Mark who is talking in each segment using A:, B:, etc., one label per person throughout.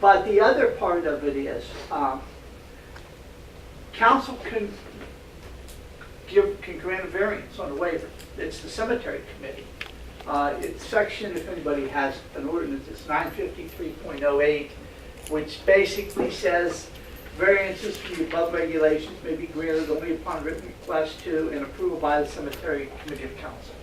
A: But the other part of it is, um, council can give, can grant a variance on a waiver. It's the cemetery committee. Uh, It's section, if anybody has an ordinance, it's 953.08, which basically says variances to the above regulations may be granted only upon written request to and approval by the cemetery committee of council.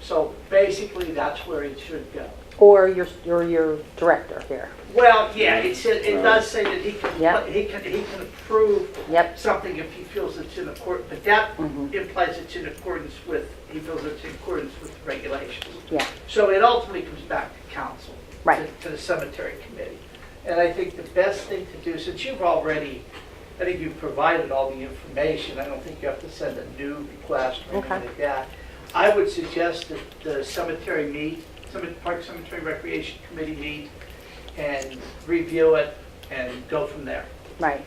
A: So basically, that's where it should go.
B: Or your, or your director here.
A: Well, yeah, it said, it does say that he
B: Yeah.
A: can, he can, he can approve
B: Yep.
A: something if he feels it's in accord, but that
B: Mhm.
A: implies it's in accordance with, he feels it's in accordance with the regulations.
B: Yeah.
A: So it ultimately comes back to council. to-
B: Right.
A: To the cemetery committee. And I think the best thing to do, since you've already, I think you've provided all the information, I don't think you have to send a new request or anything
B: Okay.
A: like that. I would suggest that the cemetery meet, Cemet- Park Cemetery Recreation Committee meet and review it and go from there.
B: Right.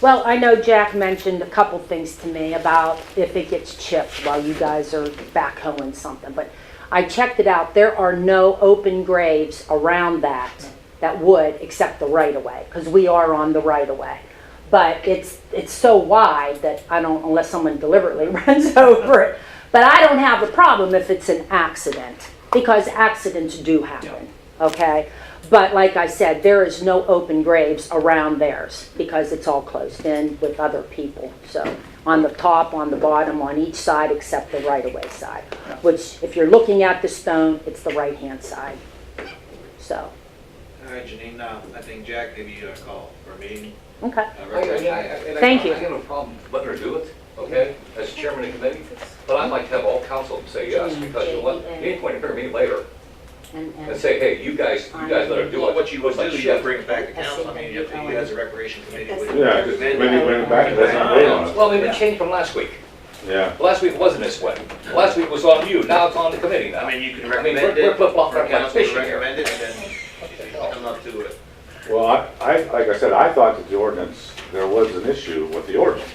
B: Well, I know Jack mentioned a couple things to me about if it gets chipped while you guys are backhoeing something, but I checked it out. There are no open graves around that that would, except the right of way, because we are on the right of way. But it's, it's so wide that I don't, unless someone deliberately runs over it. But I don't have a problem if it's an accident, because accidents do happen, okay? But like I said, there is no open graves around theirs because it's all closed in with other people. So on the top, on the bottom, on each side except the right-of-way side, which if you're looking at the stone, it's the right-hand side. So,
C: All right, Janine, uh, I think Jack gave you a call for a meeting.
B: okay,
C: Uh,
D: I- I- Oh, I- and I-
B: Thank you.
D: I have no problem letting her do it, okay, as chairman of the committee, but I'd like to have all council say yes, because you'll let, at any point, you're gonna meet later
B: and,
D: and
B: and,
D: say, hey, you guys, you guys let her do
C: Well,
D: it.
C: what you would do,
D: Like,
C: you
D: shit.
C: would bring it back to council, I mean, if you as a recreation committee would.
E: Yeah, just maybe bring it back, let's not wait on it.
D: Well, I mean, it changed from last week.
E: Yeah,
D: Last week wasn't this way. Last week was on you, now it's on the committee now.
C: I mean, you can
D: I mean,
C: recommend
D: we're-
C: it.
D: we're flip-flopping
C: or
D: like
C: council would
D: fishing here.
C: Recommend it, and then come up to it.
E: well, I, I, like I said, I thought that the ordinance, there was an issue with the ordinance,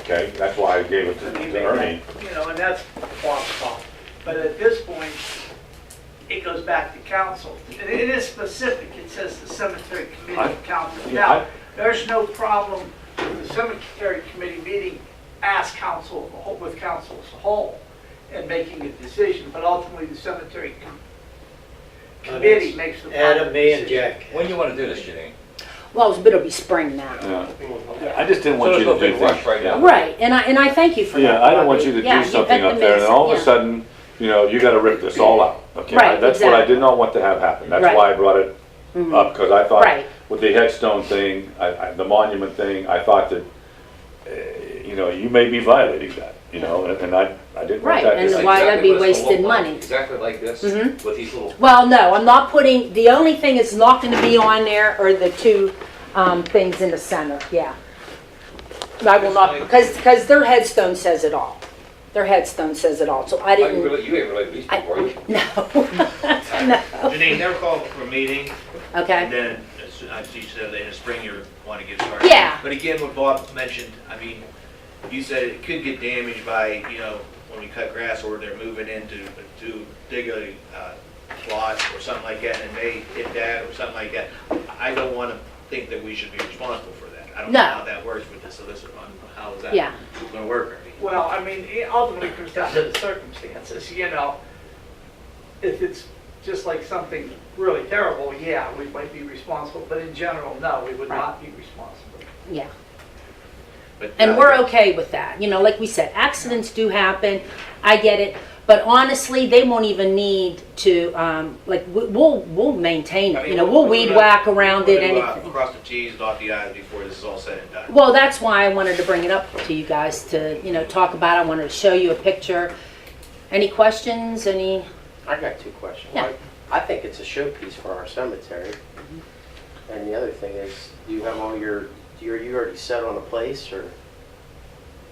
E: okay? That's why I gave it to to Ernie.
A: You know, and that's Bob's fault. But at this point, it goes back to council. And It is specific, it says the cemetery committee of council.
E: yeah, I-
A: Now, there's no problem with the cemetery committee meeting as council, with council as a whole, and making a decision, but ultimately the cemetery com- committee makes the final
F: Adam, me and
A: decision.
F: Jack.
D: When you wanna do this, Janine?
B: well, it'll be spring now.
E: Yeah. I just didn't want
D: So
E: you to
D: there's no
E: do
D: big rush
E: things.
D: right now.
B: Right, and I, and I thank you for that.
E: Yeah, I don't want you to
B: Yeah,
E: do
B: you
E: something
B: got the
E: up there, and then
B: message,
E: all of a
B: yeah.
E: sudden, you know, you gotta rip this all out, okay?
B: Right,
E: That's what I
B: exactly.
E: did not want to have happen, that's
B: Right. Mm-hmm.
E: why I brought it up, because I
B: Right.
E: thought, with the headstone thing, I, I, the monument thing, I thought that, uh, you know, you may be violating that, you know, and- and I, I didn't want
B: Right,
E: that.
B: and
E: to-
D: It's
B: why that'd be
D: exactly what it's gonna
B: wasted
D: look like,
B: money.
D: Exactly like this,
B: Mhm.
D: with these little,
B: Well, no, I'm not putting, the only thing that's not gonna be on there are the two, um, things in the center, yeah. I will not, because, because their headstone says it all. Their headstone says it all, so I
D: I can
B: didn't,
D: really, you ain't really these
B: I,
D: people, are you?
B: no, no,
C: Janine, never call for a meeting, and
B: okay,
C: then, as soon- as you said, in the spring, you want to get started.
B: Yeah.
C: But again, what Bob mentioned, I mean, you said it could get damaged by, you know, when we cut grass, or they're moving into, to dig a uh, plot or something like that, and they hit that, or something like that. I don't want to think that we should be responsible for that. I don't know
B: No.
C: how that works with the solicitor, on how is that
B: Yeah.
C: going to work? I mean,
A: Well, I mean, it ultimately comes down to the circumstances, you know. If it's just like something really terrible, yeah, we might be responsible, but in general, no, we would not be responsible.
B: yeah.
C: but- uh,
B: And we're okay with that, you know, like we said, accidents do happen, I get it, but honestly, they won't even need to, um, like, we- we'll, we'll maintain
C: I
B: it,
C: mean,
B: you know,
C: we're-
B: we'll
C: we're
B: weed
C: gonna-
B: whack around
C: we're
B: it,
C: gonna, uh,
B: anything.
C: Cross the Ts, dot the Is before this is all said and done.
B: Well, that's why I wanted to bring it up to you guys to, you know, talk about. it. I wanted to show you a picture. Any questions? Any?
F: I got two questions.
B: Yeah.
F: I think it's a showpiece for our cemetery.
B: Mm-hmm.
F: And the other thing is, do you have all your, you're, you already set on a place or?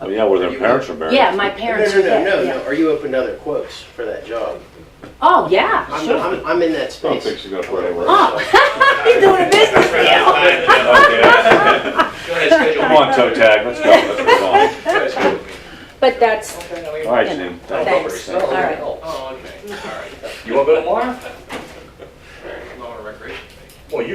E: Oh, Yeah, where their parents are buried.
B: Yeah, my parents
F: No,
B: are
F: no,
B: dead.
F: No, no,
B: yeah.
F: no, no. Are you open to other quotes for that job?
B: Oh, yeah,
F: I'm,
B: sure.
F: I'm, I'm in that
E: I don't
F: space.
E: think she's gonna put anywhere.
B: oh, you're doing a business deal.
C: Go
E: Okay.
C: ahead, schedule.
E: Come on, toe tag, let's go.
D: Oh,